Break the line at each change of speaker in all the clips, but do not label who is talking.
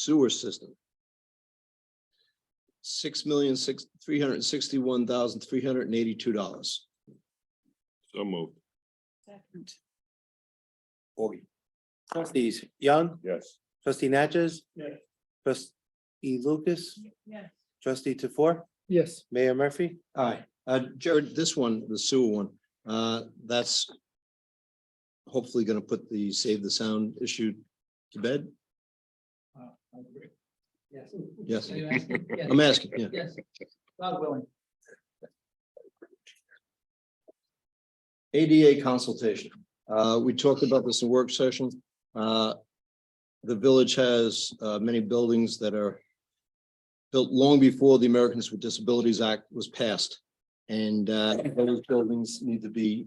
sewer system. Six million, six, three hundred and sixty-one thousand, three hundred and eighty-two dollars.
So moved.
Second.
Augie. Trustees Young,
Yes.
trustee Natchez?
Yes.
Trustee Lucas,
Yes.
trustee Tofor,
Yes.
Mayor Murphy?
Aye. Uh, Jared, this one, the sewer one, uh, that's hopefully gonna put the save the sound issue to bed.
Yes.
Yes,
Yes.
I'm asking, yeah.
Yes. God willing.
ADA consultation. Uh, we talked about this in work session. Uh, the village has, uh, many buildings that are built long before the Americans with Disabilities Act was passed. And, uh, those buildings need to be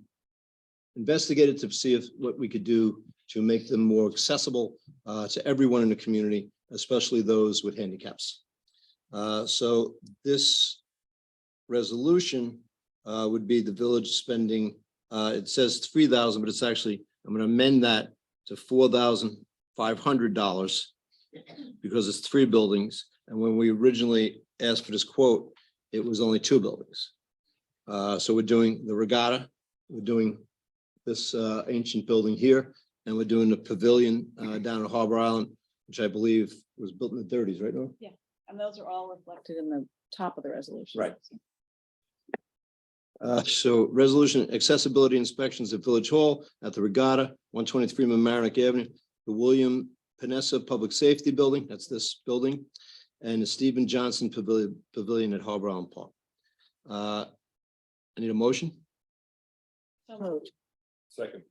investigated to see if, what we could do to make them more accessible, uh, to everyone in the community, especially those with handicaps. Uh, so this resolution, uh, would be the village spending uh, it says three thousand, but it's actually, I'm gonna amend that to four thousand five hundred dollars. Because it's three buildings, and when we originally asked for this quote, it was only two buildings. Uh, so we're doing the regatta, we're doing this uh ancient building here, and we're doing the pavilion uh down at Harbor Island, which I believe was built in the thirties, right, Norm?
And those are all reflected in the top of the resolution.
Right. Uh, so resolution accessibility inspections at Village Hall, at the Regatta, one twenty-three Mamaroneck Avenue, the William Panessa Public Safety Building, that's this building, and the Stephen Johnson Pavilion, Pavilion at Harbor Island Park. Uh, I need a motion?
So moved.
Second.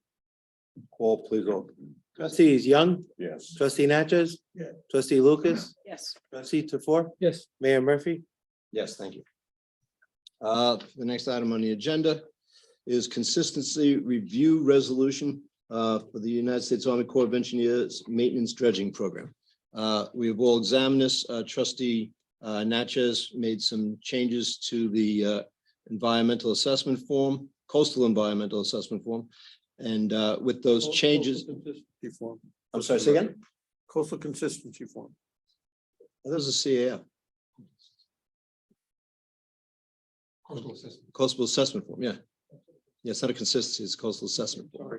Call, please, roll.
Trustees Young,
Yes.
trustee Natchez? Trustee Lucas,
Yes.
trustee Tofor,
Yes.
Mayor Murphy?
Yes, thank you. Uh, the next item on the agenda is consistency review resolution uh, for the United States Army Corps of Engineers Maintenance Dredging Program. Uh, we have all examined this. Uh, trustee uh, Natchez made some changes to the uh, environmental assessment form, coastal environmental assessment form. And uh, with those changes,
Consistency form,
I'm sorry, say again?
coastal consistency form.
There's a CAF. Coastal assessment form, yeah. Yeah, it's not a consistency, it's coastal assessment. form.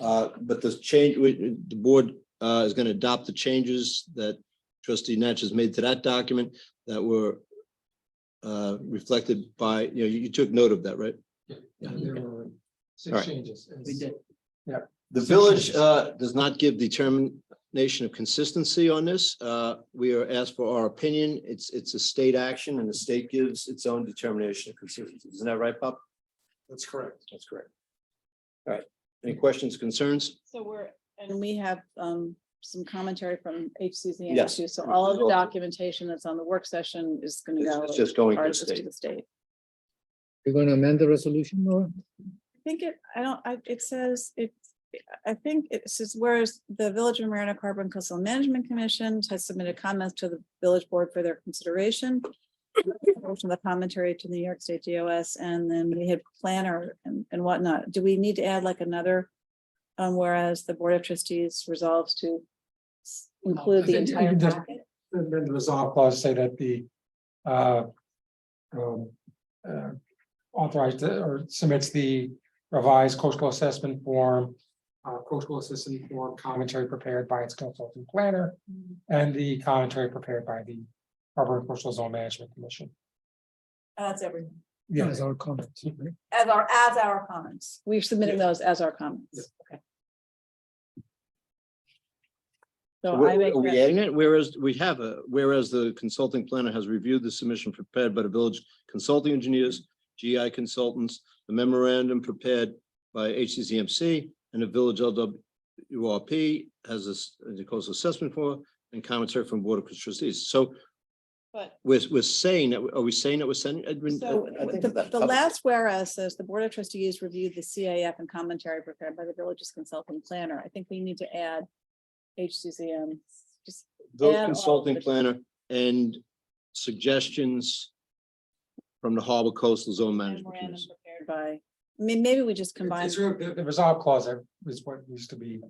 Uh, but the change, we- the board uh is gonna adopt the changes that trustee Natchez has made to that document that were uh reflected by, you know, you you took note of that, right? Yeah.
There were
All
six
right.
changes. We did.
The village uh, does not give determination of consistency on this. Uh, We are asked for our opinion. It's, it's a state action and the state gives its own determination of consistency. Isn't that right, Bob?
That's correct.
That's correct. All right. Any questions, concerns?
So we're, and we have um some commentary from HCC.
Yes.
too. So all of the documentation that's on the work session is gonna
It's
go.
it's just going to the
charges to
state.
the state.
You're gonna amend the resolution, Nora?
I think it, I don't, I, it says, it, I think it says, whereas the Village of Marina Carbon Coastal Management Commission has submitted comments to the village board for their consideration. From the commentary to the New York State DOS, and then we had planner and, and whatnot. Do we need to add like another? Um, whereas the Board of Trustees resolves to s- include the
I think you
entire
can just-
packet?
And then the resolve clause say that the uh, um, uh, authorized uh, or submits the revised coastal assessment form, uh, coastal assessment form commentary prepared by its consultant planner, and the commentary prepared by the Harbor and Coastal Zone Management Commission.
That's everything.
Yeah. Our comments.
As our, as our comments. We're submitting those as our comments. Okay. So I make,
Are we
that-
adding it? Whereas we have a, whereas the consulting planner has reviewed the submission prepared by the village consulting engineers, GI consultants, the memorandum prepared by HCCMC and the village LWRP has this, the coastal assessment for and commentary from Board of Trustees. So
but,
we're, we're saying that, are we saying that we're sending? Edwin? uh,
so
I think
the,
that
the
covers it.
last whereas says the Board of Trustees reviewed the CAF and commentary prepared by the village's consulting planner. I think we need to add HCCM, just
Village
add all
consulting
the-
planner and suggestions from the Harbor Coastal Zone Management
memorandum
Commission.
prepared by, I mean, maybe we just combine.
It's really- The the resolve clause is what used to be,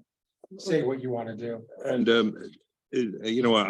say what you want to do.
And um, it- you know, I,